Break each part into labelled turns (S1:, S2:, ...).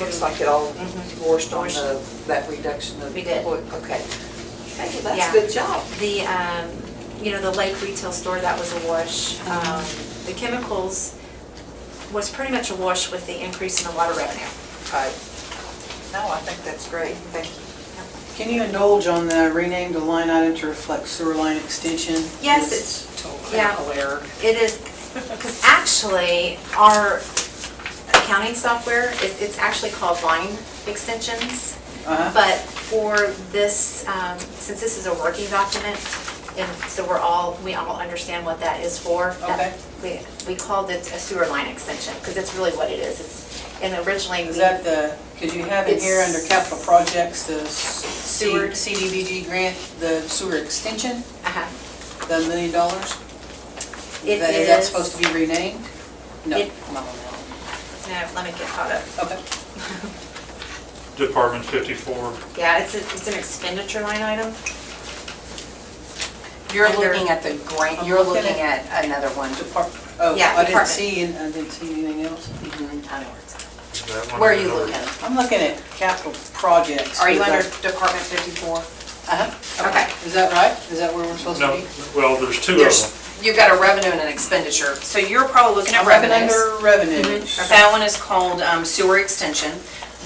S1: looks like it all
S2: Mhm.
S1: washed on the, that reduction of.
S2: We did.
S1: Okay. Hey, well, that's
S2: Yeah.
S1: a good job.
S2: The, um, you know, the Lake Retail Store, that was a wash. Um, The chemicals was pretty much a wash with the increase in the water revenue.
S1: Right. No, I think that's great, thank you.
S3: Can you indulge on the rename the line item to reflect sewer line extension?
S2: Yes,
S3: It's Totally
S2: yeah.
S3: aware.
S2: It is, because actually, our accounting software, it- it's actually called line extensions.
S3: Uh-huh.
S2: But for this, um, since this is a working document, and so we're all, we all understand what that is for. that-
S3: Okay.
S2: We, we called it a sewer line extension, because it's really what it is. It's, and originally,
S3: Is
S2: we-
S3: that the, could you have in here under capital projects, the C-
S2: Sewer.
S3: CDBG grant, the sewer extension,
S2: uh-huh.
S3: the million dollars?
S2: It
S3: That- Is that
S2: is-
S3: supposed to be renamed? No.
S2: It-
S3: come on, no.
S2: No, let me get caught up.
S3: Okay.
S4: Department 54,
S2: Yeah, it's, a- it's an expenditure line item.
S5: You're
S2: Under-
S5: looking at the grant,
S3: I'm
S5: you're
S3: looking
S5: looking at another one.
S3: Depart, oh,
S2: Yeah,
S3: I didn't
S2: department. Mm-hmm.
S3: see, an- I didn't see anything else.
S4: that one.
S5: Where are
S4: is
S5: you
S4: another-
S5: looking?
S3: I'm looking at capital projects.
S5: Are you
S3: Is
S5: under
S3: that-
S5: Department 54?
S3: Uh-huh.
S5: Okay.
S3: Is that right? Is that where we're supposed to
S4: No,
S3: be?
S4: well, there's two of them.
S5: There's, you've got a revenue and an expenditure, so you're probably looking at
S3: I'm looking
S5: revenues.
S3: under revenues.
S5: That one is called um, sewer extension.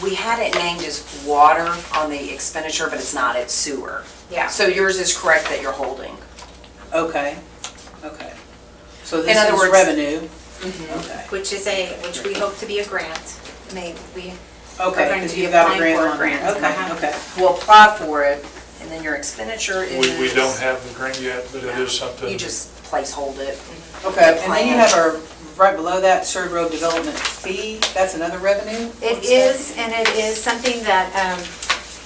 S5: We had it named as water on the expenditure, but it's not, it's sewer.
S2: Yeah.
S5: So yours is correct that you're holding.
S3: Okay, okay. So
S5: In
S3: this
S5: other
S3: is
S5: words-
S3: revenue? Okay,
S2: Which is a, which we hope to be a grant. May, we
S3: okay,
S2: going to
S3: because
S2: be
S3: you've got a
S2: applying
S3: grant
S2: for a
S3: on there.
S2: grant.
S3: Okay,
S2: Uh-huh.
S3: okay.
S5: We'll apply for it, and then your expenditure is.
S4: We, we don't have the grant yet, but it is something.
S5: You just placehold it.
S3: Okay, and then you
S5: plan.
S3: have our, right below that, Surrey Road Development Fee, that's another revenue?
S2: It
S3: What's that?
S2: is, and it is something that um,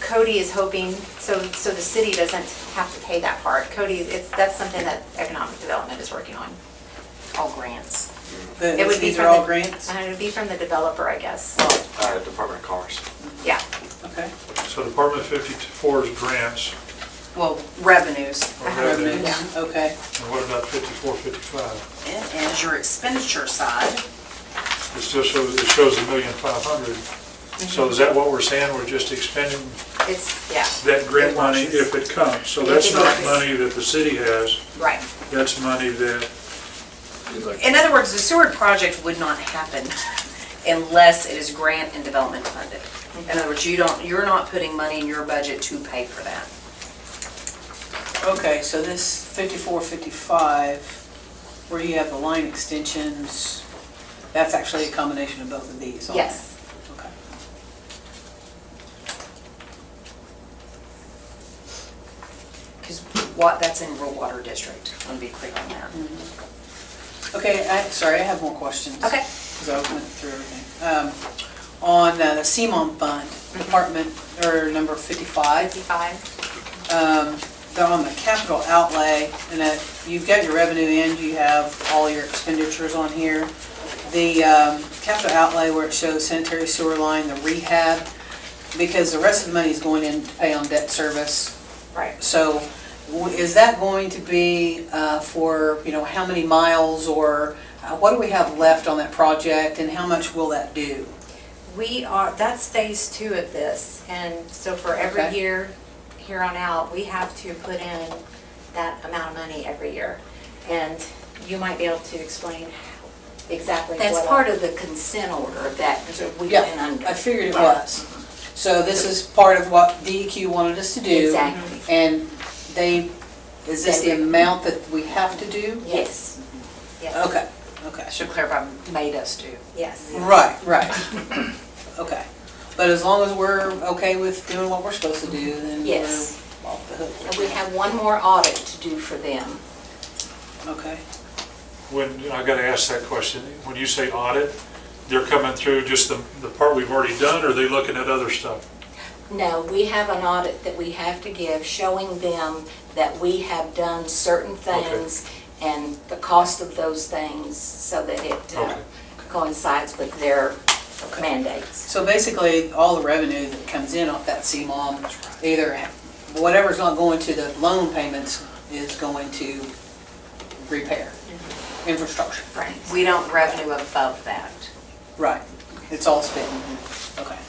S2: Cody is hoping, so, so the city doesn't have to pay that part. Cody, it's, that's something that economic development is working on.
S5: All grants.
S3: The-
S2: It would be
S3: These
S2: from
S3: are all
S2: the-
S3: grants?
S2: uh, It would be from the developer, I guess.
S6: uh, Department of Commerce.
S2: Yeah,
S3: Okay,
S4: So Department 54 is grants,
S5: Well, revenues.
S4: or revenues,
S3: revenues, okay.
S4: and what about 54, 55?
S5: It is your expenditure side.
S4: It still shows, it shows a million five hundred. So is that what we're saying, we're just expending
S2: it's, yeah,
S4: that grant money if it comes? So that's
S2: If it
S4: not
S2: comes.
S4: money that the city has,
S2: right.
S4: that's money that,
S5: In other words, the Seward project would not happen unless it is grant and development funded. In other words, you don't, you're not putting money in your budget to pay for that.
S3: Okay, so this fifty-four, fifty-five, where you have the line extensions, that's actually a combination of both of these on there?
S2: Yes.
S3: Okay.
S5: Because what, that's in rural water district, I want to be clear on that.
S3: Okay, I, sorry, I have more questions.
S2: Okay.
S3: Because I went through everything. Um, On uh, the CMOM fund,
S2: Mm-hmm.
S3: department, or number 55,
S2: 55.
S3: um, they're on the capital outlay, and that, you've got your revenue in, you have all your expenditures on here. The um, capital outlay where it shows sanitary sewer line, the rehab, because the rest of the money is going in to pay on debt service.
S2: Right.
S3: So w- is that going to be uh, for, you know, how many miles or uh, what do we have left on that project and how much will that do?
S2: We are, that's phase two of this, and so for every
S3: Okay.
S2: year here on out, we have to put in that amount of money every year. And you might be able to explain exactly what.
S7: That's part of the consent order that we
S3: Yeah,
S7: went under.
S3: I figured it was. So this is part of what DEQ wanted us to do.
S7: Exactly.
S3: And they, is this the
S7: They-
S3: amount that we have to do?
S7: Yes,
S2: Yes.
S3: Okay, okay.
S5: I should clarify, made us do.
S2: Yes.
S3: Right, right. Okay. But as long as we're okay with doing what we're supposed to do, then we're
S7: Yes.
S3: off the
S7: and
S3: hook.
S7: we have one more audit to do for them.
S3: Okay.
S4: when, I gotta ask that question, when you say audit, they're coming through just the, the part we've already done, or are they looking at other stuff?
S7: No, we have an audit that we have to give showing them that we have done certain
S4: Okay.
S7: things and the cost of those things so that it uh,
S4: Okay.
S7: coincides with their mandates.
S3: So basically, all the revenue that comes in off that CMOM, either whatever's not going to the loan payments is going to repair infrastructure.
S7: Right.
S5: We don't revenue above that.
S3: Right. It's all spent. Okay.